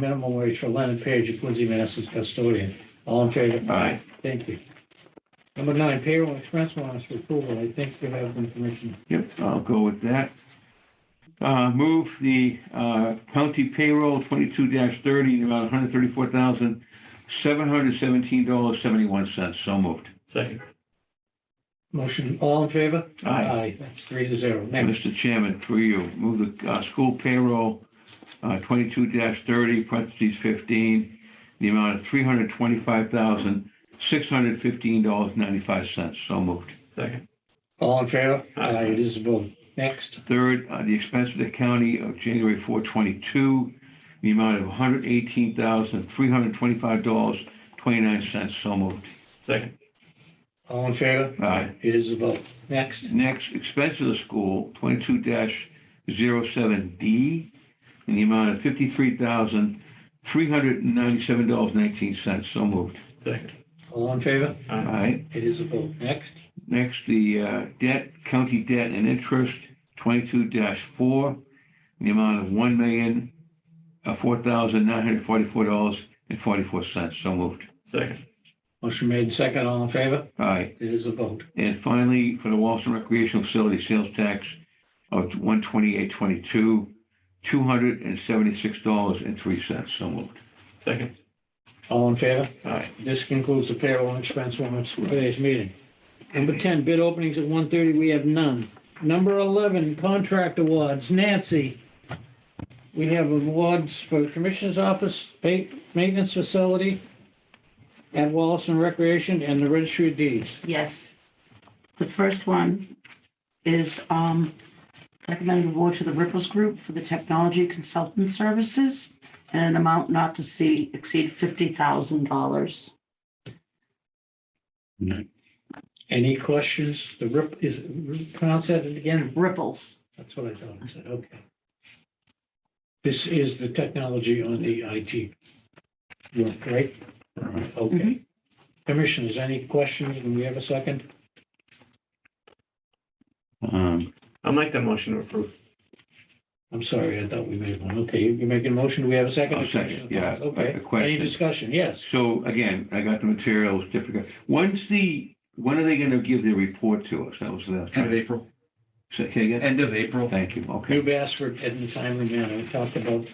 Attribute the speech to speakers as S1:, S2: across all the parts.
S1: minimum wage for Lennon Page, of Quincy, Mass. as custodian. All in favor?
S2: Aye.
S1: Thank you. Number nine, payroll and expense warrants for approval. I think we have them, Commissioner.
S2: Yep, I'll go with that. Uh, move the, uh, county payroll twenty-two thirty, in about hundred thirty-four thousand, seven hundred seventeen dollars, seventy-one cents. So moved.
S3: Second.
S1: Motion, all in favor?
S2: Aye.
S1: That's three to zero. Next,
S2: Mr. Chairman, for you, move the, uh, school payroll, uh, twenty-two thirty, parentheses fifteen, the amount of three hundred twenty-five thousand, six hundred fifteen dollars, ninety-five cents. So moved.
S3: Second.
S1: all in favor?
S3: Aye.
S1: It is a vote. Next,
S2: Third, uh, the expense of the county of January 422, the amount of $118,325.29. So moved.
S3: Second.
S1: all in favor?
S2: Aye.
S1: It is a vote. Next,
S2: Next, expense of the school, 22-07D, in the amount of $53,397.19. So moved.
S3: Second.
S1: all in favor?
S2: Aye.
S1: It is a vote. Next,
S2: Next, the uh, debt, county debt and interest, twenty-two four, in the amount of one million, uh, four thousand nine hundred forty-four dollars and forty-four cents. So moved.
S3: Second.
S1: motion made second, all in favor?
S2: All right.
S1: It is a vote.
S2: And finally, for the Walston recreational facility sales tax of one twenty-eight twenty-two, two hundred and seventy-six dollars and three cents. So moved.
S3: Second.
S1: All in favor?
S2: All right.
S1: This concludes the payroll and expense warrants for today's meeting. Number 10, bid openings at 1:30, we have none. Number 11, contract awards. Nancy, we have awards for Commissioner's Office, pa- Maintenance Facility at Wallace and Recreation, and the Registry of Deeds.
S4: Yes. The first one is um, recommended award to the Ripples Group for the technology consultant services and an amount not to see exceed $50,000.
S1: Any questions? The RIP, is, it- pronounce that again?
S4: Ripples,
S1: That's what I thought I said, okay. This is the technology on the IT work, right? Okay.
S2: Mm-hmm.
S1: Commissioners, any questions? Do we have a second?
S2: Um,
S3: I'll make that motion to approve.
S1: I'm sorry, I thought we made one. Okay, you- you're making a motion. Do we have a 2nd
S2: I'll second, yeah,
S1: Okay.
S2: a
S1: Any
S2: question.
S1: discussion? Yes.
S2: So again, I got the materials, different. When's the, when are they going to give their report to us? That was the.
S5: End of April,
S2: Say say again?
S5: end of April.
S2: Thank you, okay.
S1: New Bassford in a timely manner. We talked about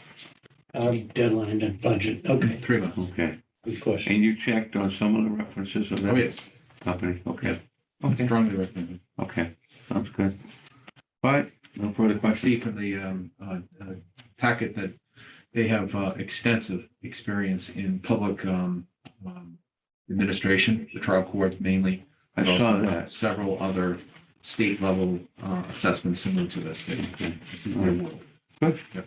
S1: um, deadline and budget. Okay,
S5: Three months.
S2: Okay,
S1: good question.
S2: and you checked on some of the references of
S5: Oh,
S2: that
S5: yes.
S2: company? Okay,
S5: I'm
S2: Okay.
S5: Strongly recommended.
S2: okay, sounds good. All right, no further
S5: I
S2: questions?
S5: see from the um, uh, uh, packet that they have uh, extensive experience in public um, um, administration, the trial court mainly.
S2: I
S5: but
S2: saw
S5: also, uh,
S2: that.
S5: Several other state level uh, assessments similar to this. They-
S2: Okay.
S5: This is
S2: Mm.
S5: their world.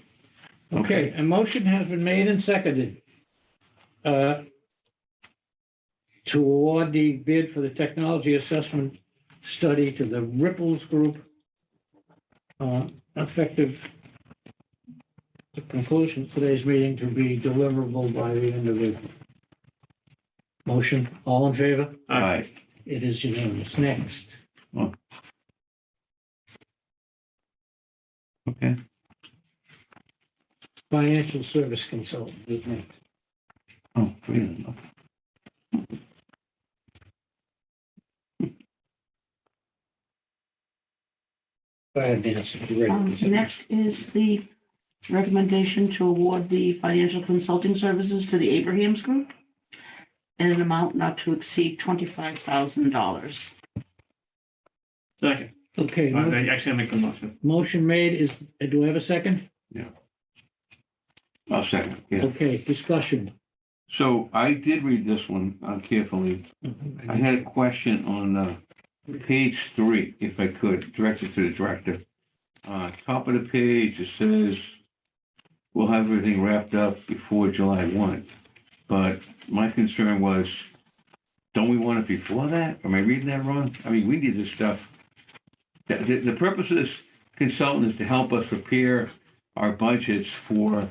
S1: Okay, a motion has been made and seconded uh, to award the bid for the technology assessment study to the Ripples Group uh, effective the conclusion of today's meeting to be deliverable by the end of April. Motion, all in favor?
S2: All right,
S1: It is unanimous. Next.
S2: okay,
S1: Financial service consultant is next.
S2: oh, three of them, okay.
S1: Go ahead, Nancy. if you're
S4: Um,
S1: ready.
S4: Next is the recommendation to award the financial consulting services to the Abrahams Group in an amount not to exceed $25,000.
S3: Second.
S1: Okay.
S3: Uh, Actually, I make the motion.
S1: Motion made is, do I have a second?
S2: I'll second, yeah.
S1: Okay, discussion.
S2: So I did read this one uh, carefully. I had a question on uh, page three, if I could, directed to the director. Uh, Top of the page, it says, we'll have everything wrapped up before July 1. But my concern was, don't we want it before that? Am I reading that wrong? I mean, we need this stuff. The- The the purpose of this consultant is to help us prepare our budgets for,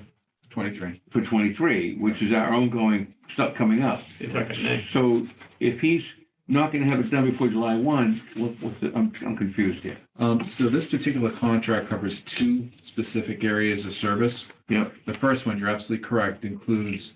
S5: 23.
S2: for 23, which is our ongoing stuff coming up.
S3: It's second.
S2: So if he's not gonna have it done before July one, what, what's the, I'm, I'm confused here.
S5: Um, so this particular contract covers two specific areas of service.
S2: Yep.
S5: The first one, you're absolutely correct, includes